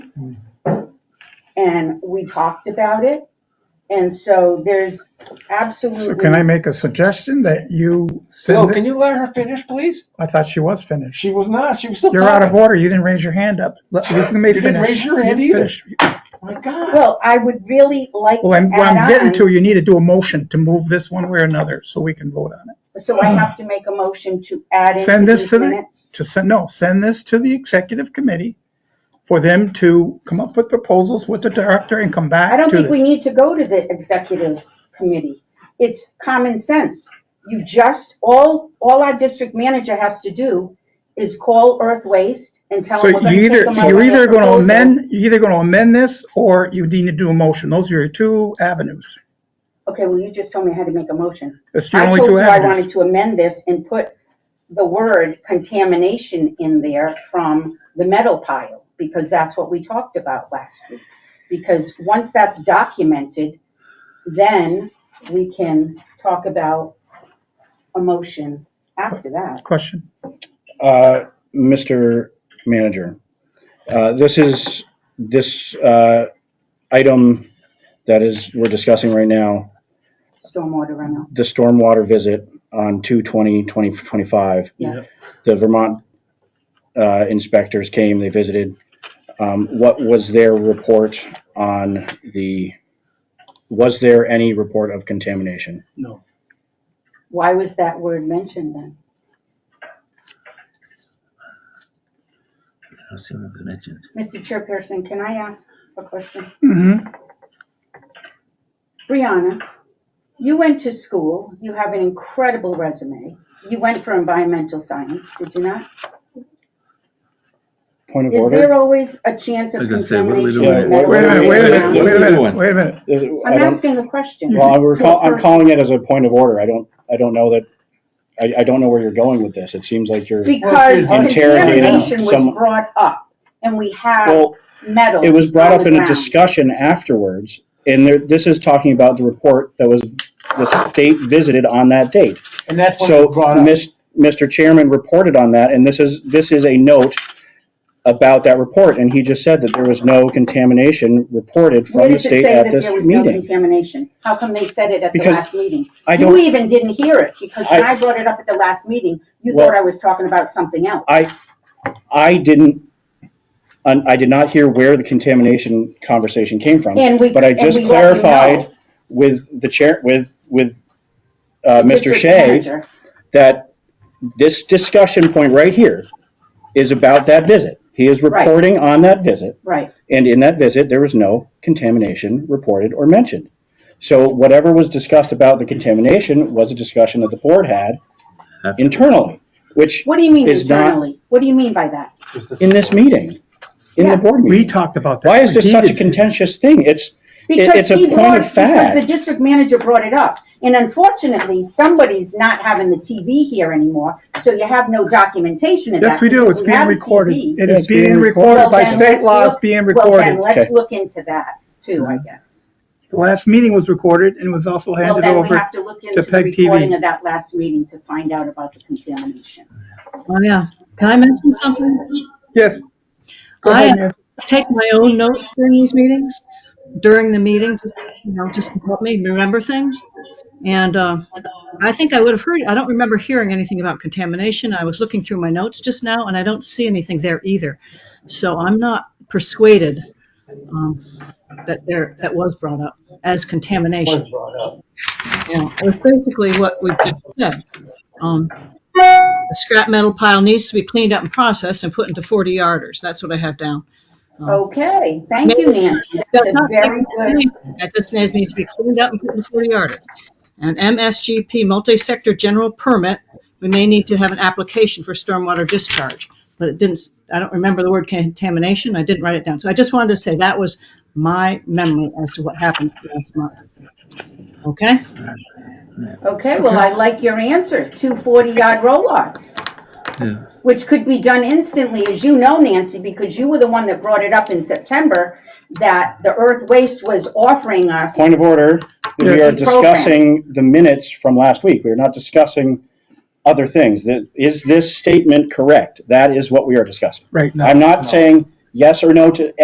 and we talked about it. And so there's absolutely. So can I make a suggestion that you Bill, send can it? you let her finish, please? I thought she was finished. She was not. She was still You're out of talking. order. You didn't raise your hand up. Let- Let me You didn't finish. raise your hand You either. finish. My God. Well, I would really like Well, I'm, to what I'm add getting on. to, you need to do a motion to move this one way or another so we can vote on it. So I have to make a motion to add Send into this these to the- minutes. To send, no, send this to the executive committee for them to come up with proposals with the director and come back I don't to think we this. need to go to the executive committee. It's common sense. You just, all, all our district manager has to do is call Earth Waste and tell So them we're you gonna take either, them out you're with their either gonna proposal. amend, you're either gonna amend this or you need to do a motion. Those are your two avenues. Okay, well, you just told me I had to make a motion. That's the I only told two you I avenues. wanted to amend this and put the word contamination in there from the metal pile, because that's what we talked about last week. Because once that's documented, then we can talk about a motion after that. Question? Uh, Mr. Manager, uh, this is, this uh, item that is, we're discussing right now, Stormwater runoff, the stormwater visit on 2/20/2025. yeah. The Vermont uh, inspectors came, they visited. Um, What was their report on the, was there any report of contamination? No. Why was that word mentioned then? I've seen it mentioned. Mr. Chairperson, can I ask a question? hmm Brianna, you went to school, you have an incredible resume. You went for environmental science, did you not? Point of Is there order? always a chance of I was gonna say, what are we contamination? with doing metal? here? Wait a minute, wait a What minute, wait a are we minute, doing? wait a minute. I don't- I'm asking a question. Well, I'm, To recall, a I'm person. calling it as a point of order. I don't, I don't know that, I, I don't know where you're going with this. It seems like you're, Because Well, it's interrogating contamination was someone. brought up and we have well, metals. it was brought on up the in a ground. discussion afterwards. And there, this is talking about the report that was, the state visited on that date. And that's when it So, was brought up. Mis- Mr. Chairman reported on that, and this is, this is a note about that report, and he just said that there was no contamination reported Where from the does it say state at that this there was no meeting. contamination? How come they said it at the Because last meeting? I You don't, even didn't hear it because when I- I brought it up at the last meeting, you Well- thought I was talking about something else. I, I didn't, un- I did not hear where the contamination conversation came from. And we- But I and just we let you know. clarified with the chair, with, with, uh, Mr. District Shea, manager. that this discussion point right here is about that visit. He is Right. reporting on that visit, Right. and in that visit, there was no contamination reported or mentioned. So whatever was discussed about the contamination was a discussion that the board had internally, which What do you mean is not- internally? What do you mean by that? in this meeting, in Yeah. the board We meeting. talked about that. Why is this He such a did say- contentious thing? It's, it- Because it's a he point brought, of because the fact. district manager brought it up. And unfortunately, somebody's not having the TV here anymore, so you have no documentation of that. Yes, we do. because It's being have the recorded. TV. It Yeah, is being recorded Well, by then state let's laws, look- being Well, then, recorded. let's Okay. look into that too, I guess. The last meeting was recorded and was also Well, handed then we over. have to look into the Peg TV. recording of that last meeting to find out about the contamination. Oh, yeah. Can I mention something? Yes. Go I uh, ahead, Nancy. take my own notes during these meetings, during the meeting, you know, just to help me remember things. And uh, I think I would have heard, I don't remember hearing anything about contamination. I was looking through my notes just now, and I don't see anything there either. So I'm not persuaded um, that there, that was brought up as It contamination. was brought up. Yeah, it was basically what we just said. Um, The scrap metal pile needs to be cleaned up and processed and put into 40 yarders. That's what I have down. Um, Okay, thank you, Nancy. That's that's a not- very good, That just needs needs to be cleaned up and put into 40 yarders. An MSGP, multi-sector general permit, we may need to have an application for stormwater discharge. But it didn't, s- I don't remember the word contamination. I didn't write it down. So I just wanted to say that was my memory as to what happened last month. Okay? okay, well, I like your answer, two forty-yard roll-offs. Yeah. which could be done instantly, as you know, Nancy, because you were the one that brought it up in September, that the Earth Waste was offering us. Point of order, we are Yes. Program. discussing the minutes from last week. We are not discussing other things. That- Is this statement correct? That is what we are discussing. Right now. I'm not saying yes or no to